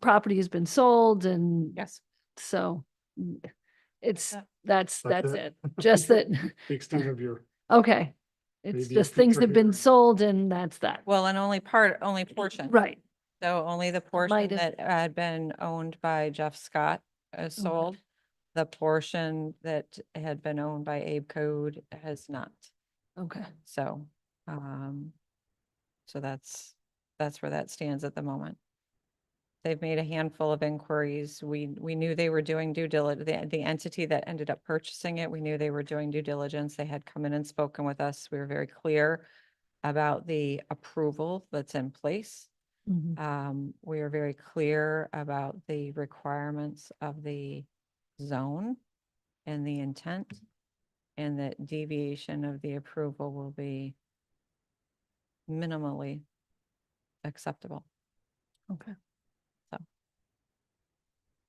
property has been sold and Yes. so mm, it's, that. that's, That's that's it. it. Just that, the extent of your, okay. It's Maybe a just things future have been hearing. sold and that's that. Well, and only part, only portion. Right, So only the portion might have- Mm-hmm. that had been owned by Jeff Scott is Okay. sold. The portion that had been owned by Abe Code has not. okay. So, um, so that's, that's where that stands at the moment. They've made a handful of inquiries. We, we knew they were doing due diligence, the, the entity that ended up purchasing it, we knew they were doing due diligence. They had come in and spoken with us. We were very clear about the approval that's in place. Mhm. Um, we are very clear about the requirements of the zone and the intent. And that deviation of the approval will be minimally acceptable. Okay. So.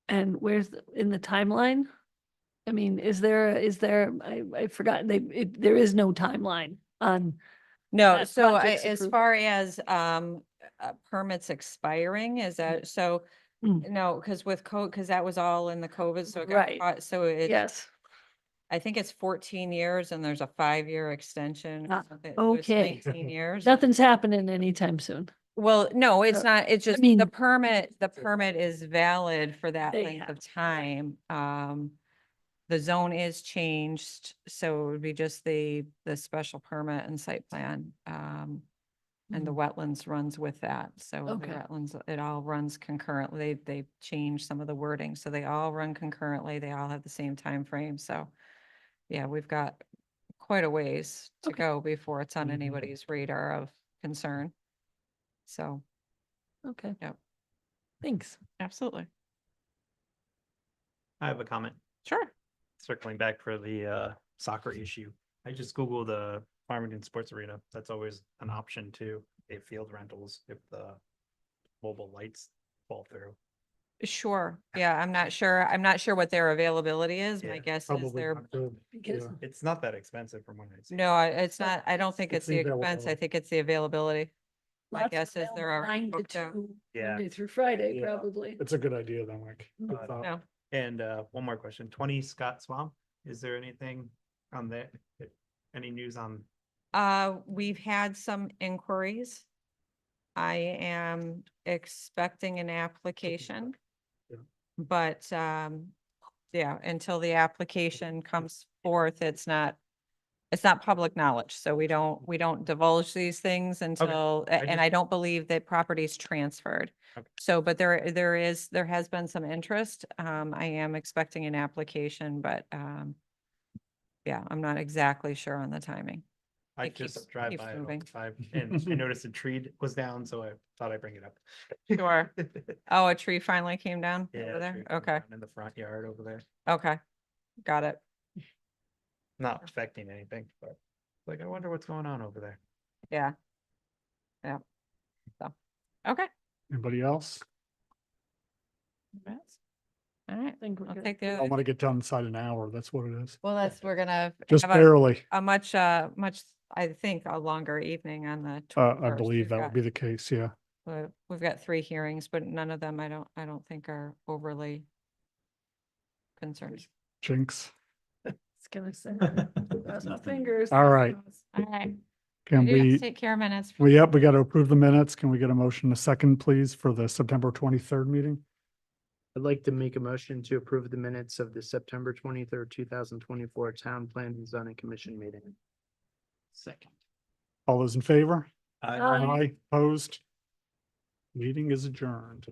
And where's, the- in the timeline? I mean, is there, is there, I, I forgot, they, it, there is no timeline on, No, That so I, project's as approved. far as, um, uh, permits expiring, is that, so, Mm. no, because with code, because that was all in the COVID, so it got Right. caught, so it. yes, I think it's fourteen years and there's a five-year extension. or Ah, something, so it's okay. 19 years. nothing's happening anytime soon. Well, no, it's Uh, not. It's just mean- the permit, the permit is valid for that There you length have of time. Um, the zone is changed, so it would be just the, the special permit and site plan. Um, and the wetlands runs with that. So the Okay. wetlands, it all runs concurrently. They, they changed some of the wording, so they all run concurrently. They all have the same time frame. so. Yeah, we've got quite a ways to Okay. go before it's on Mhm. anybody's radar of concern. So, Okay. Yep. Thanks. absolutely, I have a comment sure. circling back for the uh soccer issue. I just Googled the Farmington Sports Arena. That's always an option too. They have field rentals if the mobile lights fall through. Sure, yeah, I'm not sure. I'm not sure what their availability is. My Yeah, guess is probably they're, not good. Because- Yeah. It's not that expensive from what I see. no, I- it's not, I don't think it's It's the expense. I availability. think it's the availability. My Lots guess is available they're already nine to booked out. two, Yeah. Monday through Friday, Yeah. probably. It's a good idea then, like. good Uh, thought. No, And uh one more question, twenty Scott Swamp, is there anything on there? Any news on? Uh, we've had some inquiries. I am expecting an application. Yeah. But, um, yeah, until the application comes forth, it's not, it's not public knowledge. So we don't, we don't divulge these things until, a- and just- I don't believe that property's transferred. Okay. So, but there, there is, there has been some interest. Um, I am expecting an application, but, um, yeah, I'm not exactly sure on the timing. I It keeps- just drive keeps by it all moving. the time and I noticed a tree was down, so I thought I'd bring it up. Sure. Oh, a tree finally came down Yeah, over a there? tree came Okay, down In the front yard over there. okay. Got it. not Oh. affecting anything, but like, I wonder what's going on over there. Yeah. Yeah. So, okay. Anybody else? All right, I think we're I'll good. take the I other. want to get done inside an hour. That's what it is. Well, that's, we're gonna Just have a, barely, a much, uh, much, I think, a longer evening on the. uh, I 21st. believe We've that got- would be the case, yeah. we- We've got three hearings, but none of them, I don't, I don't think are overly concerned. Jinx. It's gonna say, cross my fingers. All right. All right. Can You guys we, Take care of minutes. we, yep, we got to approve the minutes. Can we get a motion in a second, please, for the September twenty-third meeting? I'd like to make a motion to approve the minutes of the September twenty-third, two thousand twenty-four Town Plan and Zoning Commission meeting. Second. All those in favor? Oh, Aye. Aye, opposed? Meeting is adjourned.